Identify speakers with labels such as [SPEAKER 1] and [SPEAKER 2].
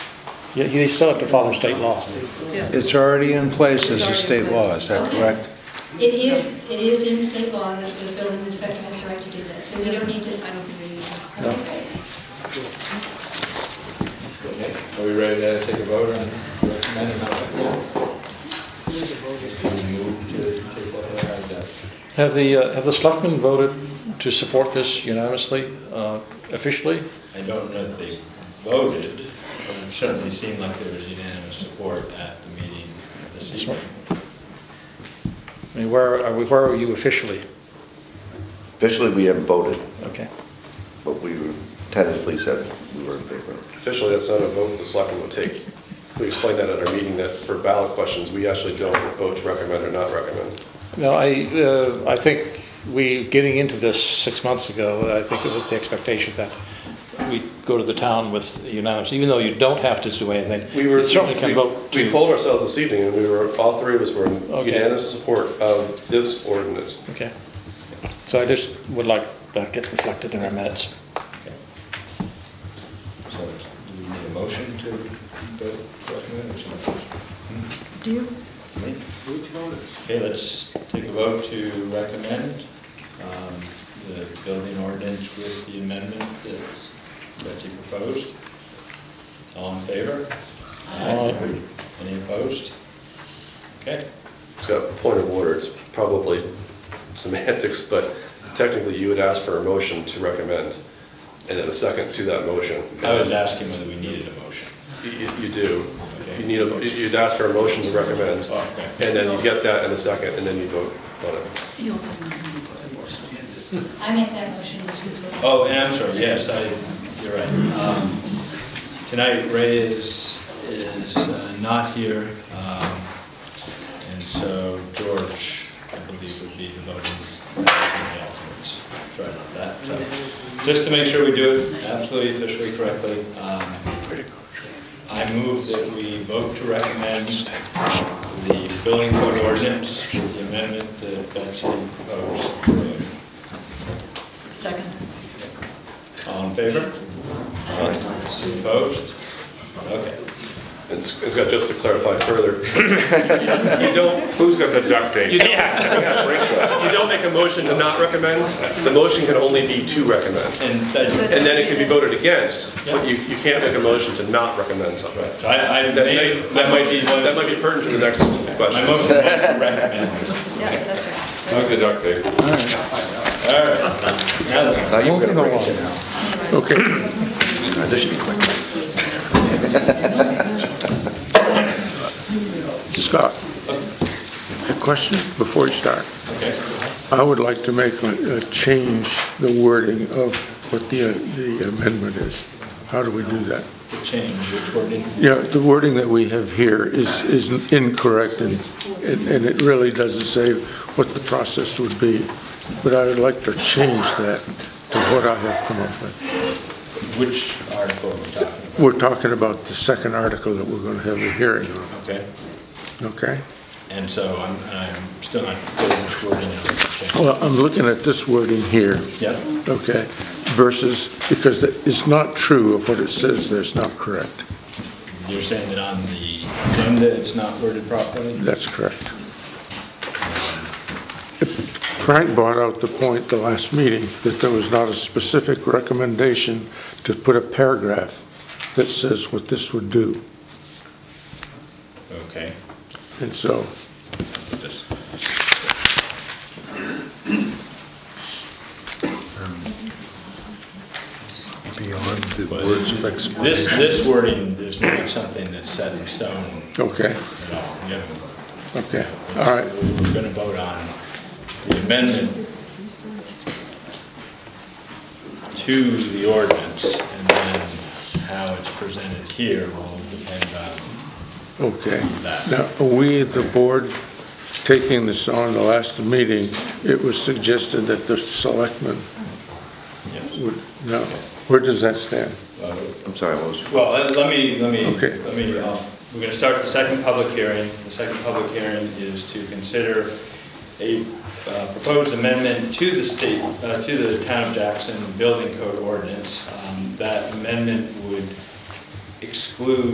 [SPEAKER 1] Yeah, They still have to follow state law.
[SPEAKER 2] It's already in place as a state law, is that
[SPEAKER 3] Okay.
[SPEAKER 2] correct?
[SPEAKER 3] It is, it is in state law that the building inspector has the right to do that, so we don't need to sign up for it. Okay, great.
[SPEAKER 4] Okay, Are we ready to take a vote on recommending that? Can we move to take what I had that?
[SPEAKER 1] Have the, uh, have the selectmen voted to support this unanimously, uh, officially?
[SPEAKER 4] I don't know that they voted, but it certainly seemed like there was unanimous support at the meeting this
[SPEAKER 1] That's right.
[SPEAKER 4] evening.
[SPEAKER 1] I mean, where are we, where are you officially?
[SPEAKER 5] Officially, we haven't voted,
[SPEAKER 1] Okay.
[SPEAKER 5] but we tentatively said we were in favor.
[SPEAKER 6] Officially, that's not a vote the selectmen would take. We explained that at our meeting, that for ballot questions, we actually don't vote to recommend or not recommend.
[SPEAKER 1] No, I, uh, I think we, getting into this six months ago, I think it was the expectation that we go to the town with unanimous, even though you don't have to do anything.
[SPEAKER 6] We were
[SPEAKER 1] You certainly can
[SPEAKER 6] we-
[SPEAKER 1] vote
[SPEAKER 6] We
[SPEAKER 1] to.
[SPEAKER 6] polled ourselves this evening, and we were, all three of us were in
[SPEAKER 1] Okay.
[SPEAKER 6] unanimous support of this ordinance.
[SPEAKER 1] Okay. So I just would like that get reflected in our minutes.
[SPEAKER 4] So do we need a motion to vote to recommend or something?
[SPEAKER 3] Do you?
[SPEAKER 4] Me? Okay, let's take a vote to recommend um, the building ordinance with the amendment that Betsy proposed. All in favor?
[SPEAKER 1] Aye.
[SPEAKER 4] Any opposed? Okay.
[SPEAKER 6] It's got a point of order, it's probably semantics, but technically, you would ask for a motion to recommend, and then a second to that motion.
[SPEAKER 4] I was asking whether we needed a motion.
[SPEAKER 6] You- You you do.
[SPEAKER 4] Okay.
[SPEAKER 6] You need, a- you'd ask for a motion to recommend,
[SPEAKER 4] Okay.
[SPEAKER 6] and then you get that in a second, and then you vote on it.
[SPEAKER 3] I make that motion, this is what.
[SPEAKER 4] Oh, and I'm sorry, yes, I, you're right. Um, Tonight Ray is, is uh, not here, um, and so George, I believe, would be the voting the alternates. Sorry about that. So, Just to make sure we do it absolutely officially correctly, um, I move that we vote to recommend the building code ordinance, with the amendment that Betsy proposed.
[SPEAKER 7] Second.
[SPEAKER 4] All in favor? Aye. Opposed? Okay.
[SPEAKER 6] It's, it's got, just to clarify further, you don't,
[SPEAKER 8] Who's got the duct tape?
[SPEAKER 6] you don't, you don't make a motion to not recommend, the motion can only be to recommend.
[SPEAKER 4] And that-
[SPEAKER 6] And then it can be voted against, but you, you can't make a motion to not recommend something.
[SPEAKER 4] right, so I, I
[SPEAKER 6] That
[SPEAKER 4] may,
[SPEAKER 6] might,
[SPEAKER 4] my
[SPEAKER 6] that might be,
[SPEAKER 4] motion
[SPEAKER 6] that might
[SPEAKER 4] was,
[SPEAKER 6] be pertinent to the next
[SPEAKER 4] my
[SPEAKER 6] question.
[SPEAKER 4] motion was to recommend.
[SPEAKER 7] Yeah, that's right.
[SPEAKER 8] Who's the duct tape?
[SPEAKER 4] All right. Now then.
[SPEAKER 5] Now you've got to bring it down.
[SPEAKER 2] Okay.
[SPEAKER 5] Now, This should be quick.
[SPEAKER 8] Scott, a question before you start. I would like to make a, a change, the wording of what the, uh, the amendment is. How do we do that?
[SPEAKER 4] to change which ordinance.
[SPEAKER 8] Yeah, the wording that we have here is, is incorrect and, and and it really doesn't say what the process would be. But I would like to change that to what I have come up with.
[SPEAKER 4] Which article are we talking about?
[SPEAKER 8] We're talking about the second article that we're going to have a hearing on,
[SPEAKER 4] Okay.
[SPEAKER 8] okay?
[SPEAKER 4] And so I'm, I'm still not clear which wording I'm going to change.
[SPEAKER 8] Well, I'm looking at this wording here,
[SPEAKER 4] Yeah,
[SPEAKER 8] okay, versus, because it's not true of what it says there, it's not correct.
[SPEAKER 4] you're saying that on the agenda, it's not worded properly?
[SPEAKER 8] That's correct. Frank brought out the point the last meeting, that there was not a specific recommendation to put a paragraph that says what this would do.
[SPEAKER 4] Okay.
[SPEAKER 8] And so,
[SPEAKER 4] This-
[SPEAKER 2] Beyond the words of explanation.
[SPEAKER 4] This, this wording is not something that's set in stone
[SPEAKER 8] okay,
[SPEAKER 4] at all. We haven't
[SPEAKER 8] okay, all right.
[SPEAKER 4] We're going to vote on the amendment to the ordinance, and then how it's presented here will depend on,
[SPEAKER 8] Okay. Now, are we, the board, taking this on the last meeting, it was suggested that the selectmen
[SPEAKER 4] yes.
[SPEAKER 8] would, no, where does that stand?
[SPEAKER 5] I'm sorry, what was,
[SPEAKER 4] Well, let- let me, let me,
[SPEAKER 8] Okay.
[SPEAKER 4] let me, uh, we're going to start the second public hearing. The second public hearing is to consider a uh, proposed amendment to the state, uh, to the Town of Jackson Building Code ordinance. Um, That amendment would exclude